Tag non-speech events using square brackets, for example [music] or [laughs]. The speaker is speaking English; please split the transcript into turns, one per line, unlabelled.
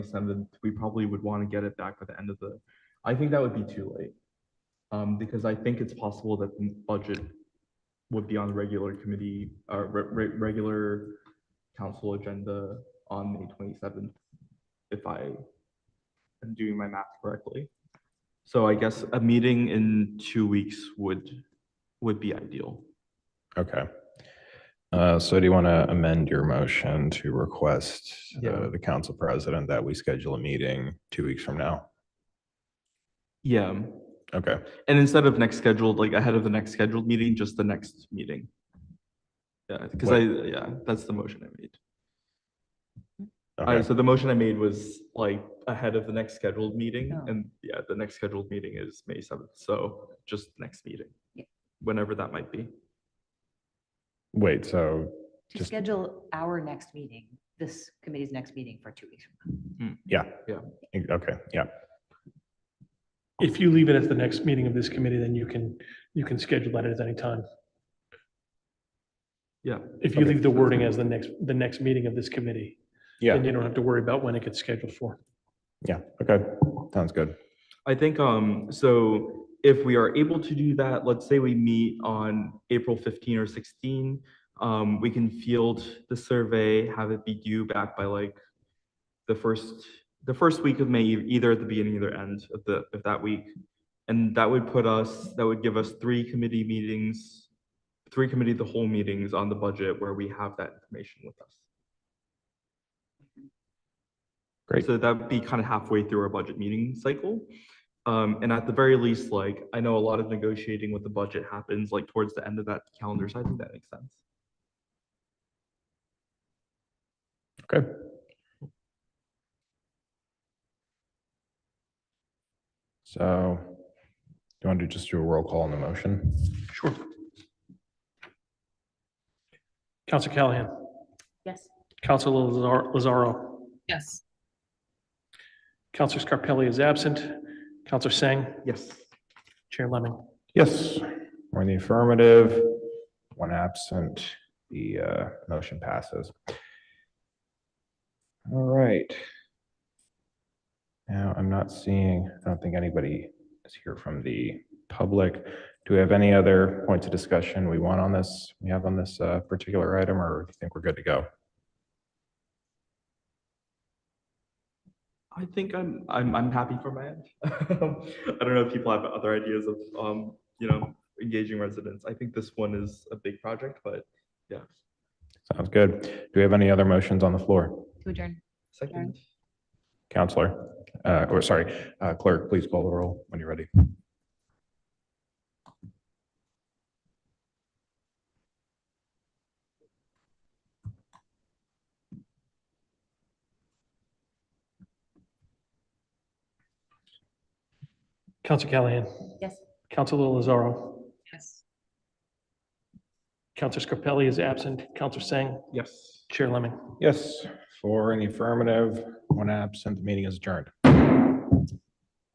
And then we probably would want to get it back by the end of the, I think that would be too late. Um, because I think it's possible that the budget would be on the regular committee, uh, re- re- regular council agenda on May twenty-seventh, if I am doing my math correctly. So I guess a meeting in two weeks would, would be ideal.
Okay. Uh, So do you want to amend your motion to request
Yeah.
uh, the council president that we schedule a meeting two weeks from now?
Yeah,
Okay,
and instead of next scheduled, like ahead of the next scheduled meeting, just the next meeting. Yeah, because I, yeah, that's the motion I made. Uh,
okay,
so the motion I made was like ahead of the next scheduled meeting,
Oh.
and yeah, the next scheduled meeting is May seventh, so just next meeting.
Yeah.
Whenever that might be.
wait, so,
To
Just-
schedule our next meeting, this committee's next meeting for two weeks. from
yeah. E,
Yeah.
Okay, yeah,
If you leave it as the next meeting of this committee, then you can, you can schedule that at any time.
Yeah.
If you leave the wording as the next, the next meeting of this committee, then
yeah,
you don't have to worry about when it gets scheduled for.
yeah, okay, sounds good.
I think, um, so if we are able to do that, let's say we meet on April fifteen or sixteen, um, we can field the survey, have it be due back by like the first, the first week of May, e- either at the beginning or the end of the, of that week. And that would put us, that would give us three committee meetings, three committee, of the whole meetings on the budget where we have that information with us.
Great.
So that'd be kind of halfway through our budget meeting cycle. Um, and at the very least, like, I know a lot of negotiating with the budget happens like towards the end of that calendar, so I think that makes sense.
Okay. So do you want to just do a roll call on the motion?
Sure. Council Callahan,
Yes.
Council Lazar- Lazaro,
Yes.
Council Scarpelli is absent, Council Sang,
Yes.
Chair Lemming.
Yes, one in the affirmative, one absent, the uh, motion passes. All right. Now, I'm not seeing, I don't think anybody is here from the public. Do we have any other points of discussion we want on this, we have on this uh, particular item, or do you think we're good to go?
I think I'm, I'm, I'm happy for my end. [laughs] I don't know if people have other ideas of, um, you know, engaging residents. I think this one is a big project, but yeah.
Sounds good. Do we have any other motions on the floor?
To adjourn.
Second,
Counselor, uh, or sorry, uh, clerk, please call the roll when you're ready.
Council Callahan,
Yes.
Council Lazaro,
Yes.
Council Scarpelli is absent, Council Sang,
yes.
Chair Lemming.
Yes, for in the affirmative, one absent, the meeting is adjourned.